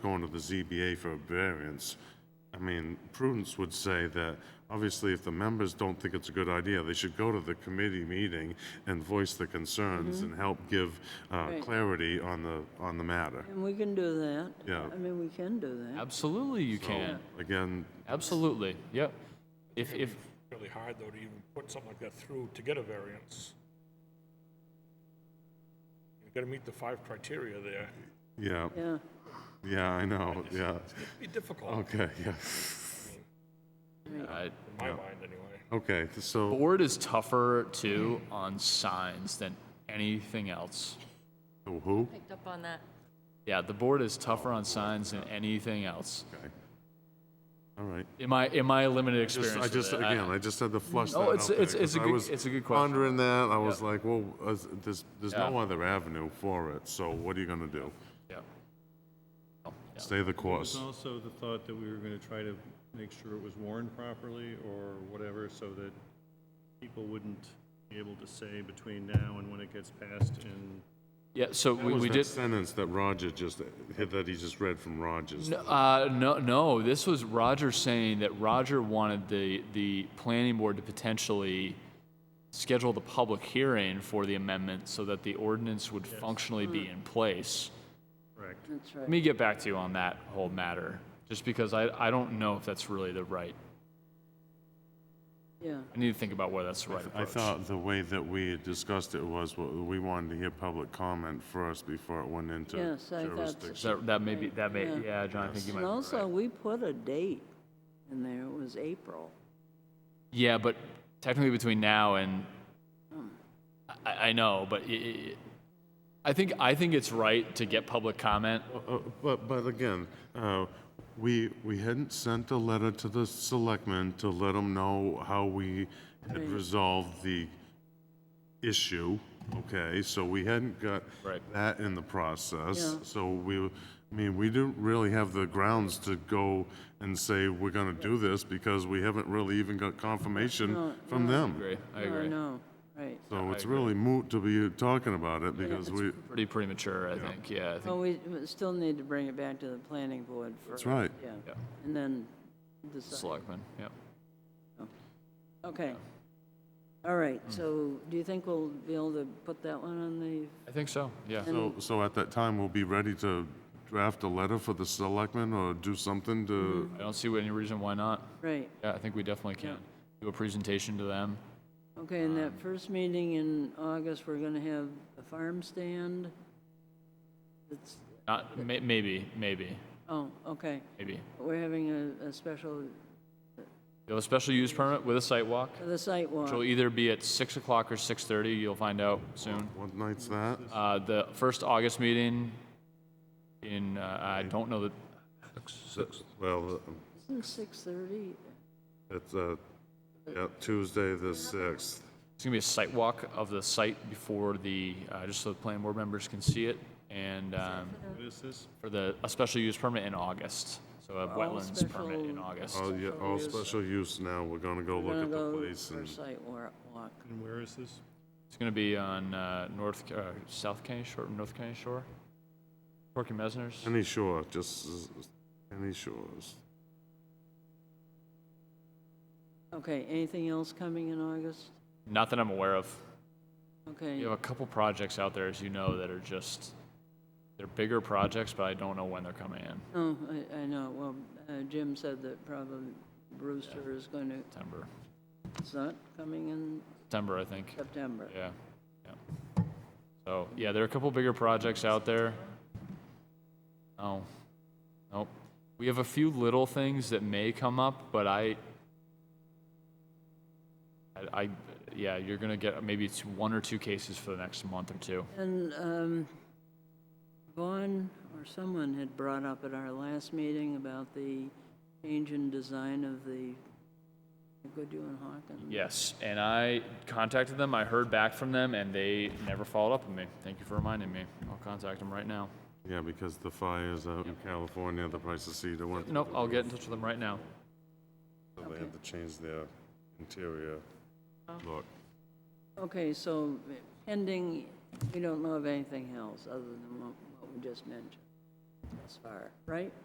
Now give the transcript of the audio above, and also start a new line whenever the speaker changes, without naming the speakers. going to the ZBA for a variance, I mean, prudence would say that, obviously, if the members don't think it's a good idea, they should go to the committee meeting and voice their
Mm-hmm.
concerns and help give uh,
Right.
clarity on the, on the matter.
And we can do that.
Yeah.
I mean, we can do that.
Absolutely, you can.
Again,
Absolutely, yep. If, if,
really hard, though, to even put something like that through to get a variance. You gotta meet the five criteria there.
yeah,
Yeah,
yeah, I know, yeah,
It'd be difficult,
okay, yeah,
I-
in my mind, anyway.
okay, so.
uh, board is tougher too on signs than anything else.
So Who?
picked up on that.
Yeah, the board is tougher on signs than anything else.
Okay. All right.
In my, in my limited
Just-
experience
I
with
just,
it,
again, I just had to flush that
No,
out
it's-
there,
it's- it's
'cause
a
I
good-
was
it's a good question.
Pondering that, I was
Yeah.
like, well, uh, there's, there's no
Yeah.
other avenue for it, so what are you gonna do?
yeah. Yeah.
Stay the
There's
course.
also the thought that we were going to try to make sure it was warned properly or whatever, so that people wouldn't be able to say between now and when it gets passed and
Yeah, so
That
we,
was
we
that
did,
sentence that Roger just, that he just read from Rogers.
N- Uh, no, no. This was Roger saying that Roger wanted the the planning board to potentially schedule the public hearing for the amendment so that the ordinance would functionally be
Hmm.
in place.
correct.
that's
Let
right.
me get back to you on that whole matter, just because I, I don't know if that's really the right.
Yeah,
I need to think about whether that's the right
I
approach.
thought the way that we had discussed it was, well, we wanted to hear public comment first before it went into
Yes, I thought so.
jurisdiction.
that, that may be that may
Yeah.
yeah, John. I think you might.
and
be
also,
right.
we put a date in there, it was April.
Yeah, but technically between now and I, I know, but i- i I think I think it's right to get public comment
Oh,
Uh, But, but again, uh, we, we hadn't sent a letter to the selectmen to let them know how we had resolved the issue, okay? So we hadn't got
Right.
that in the process.
Yeah.
So we, I mean, we didn't really have the grounds to go and say, we're gonna do this, because we haven't really even got confirmation from them.
agree. I
No,
agree.
no, right.
So it's really moot to be talking about it, because we,
Pretty premature, I think. Yeah, I think.
Well, we we still need to bring it back to the planning board first.
that's right.
Yeah,
Yeah.
and then decide.
Selectmen. Yeah.
Okay. All right,
Hmm.
so do you think we'll be able to put that one on the,
I think so. Yeah.
So, so at that time, we'll be ready to draft a letter for the selectmen or do something to,
I don't see any reason why not.
right,
Yeah, I think we definitely can do a presentation to them.
okay, in
Um.
that first meeting in August, we're gonna have a farm stand? It's,
Not may, maybe, maybe,
oh, okay,
maybe.
we're having a, a special,
You'll have a special use permit with a site walk,
the site walk.
which will either be at six o'clock or six thirty. You'll find out soon.
what night's that?
Uh, the first August meeting in, uh, I don't know that,
Well, uh,
Isn't six thirty?
it's, uh, yeah, Tuesday the sixth.
it's gonna be a site walk of the site before the, uh, just so the planning board members can see it. And, um,
What is this?
for the, a special use permit in August. So a wetlands permit in
special-
August.
All, yeah, all special use now, we're gonna go look
We're gonna
at the
go
place
for a
and,
site wa- walk.
And where is this?
It's going to be on uh, North, Ca- uh, South County Shore, North County Shore, Porky Mesner's.
any shore, just, s- any shores.
Okay, anything else coming in August?
Not that I'm aware of. You
Okay,
have a couple projects out there, as you know, that are just they're bigger projects, but I don't know when they're coming in.
no, Oh, I, I know, well, uh, Jim said that probably Brewster is going to,
September,
it's not coming in
September, I think.
September.
Yeah, yeah. So yeah, there are a couple bigger projects out there. Oh, nope. We have a few little things that may come up, but I, I, I yeah, you're gonna get maybe it's one or two cases for the next month or two.
And um, Vaughn or someone had brought up at our last meeting about the change in design of the Goodhue and Hawkins.
Yes, and I contacted them. I heard back from them, and they never followed up with me. Thank you for reminding me. I'll contact them right now.
Yeah, because the fires out in California, the price of cedar went.
Nope, I'll get in touch with them right now.
so They had to change their interior
Oh.
look.
Okay, so pending, we don't know of anything else other than what what we just mentioned. this far, right?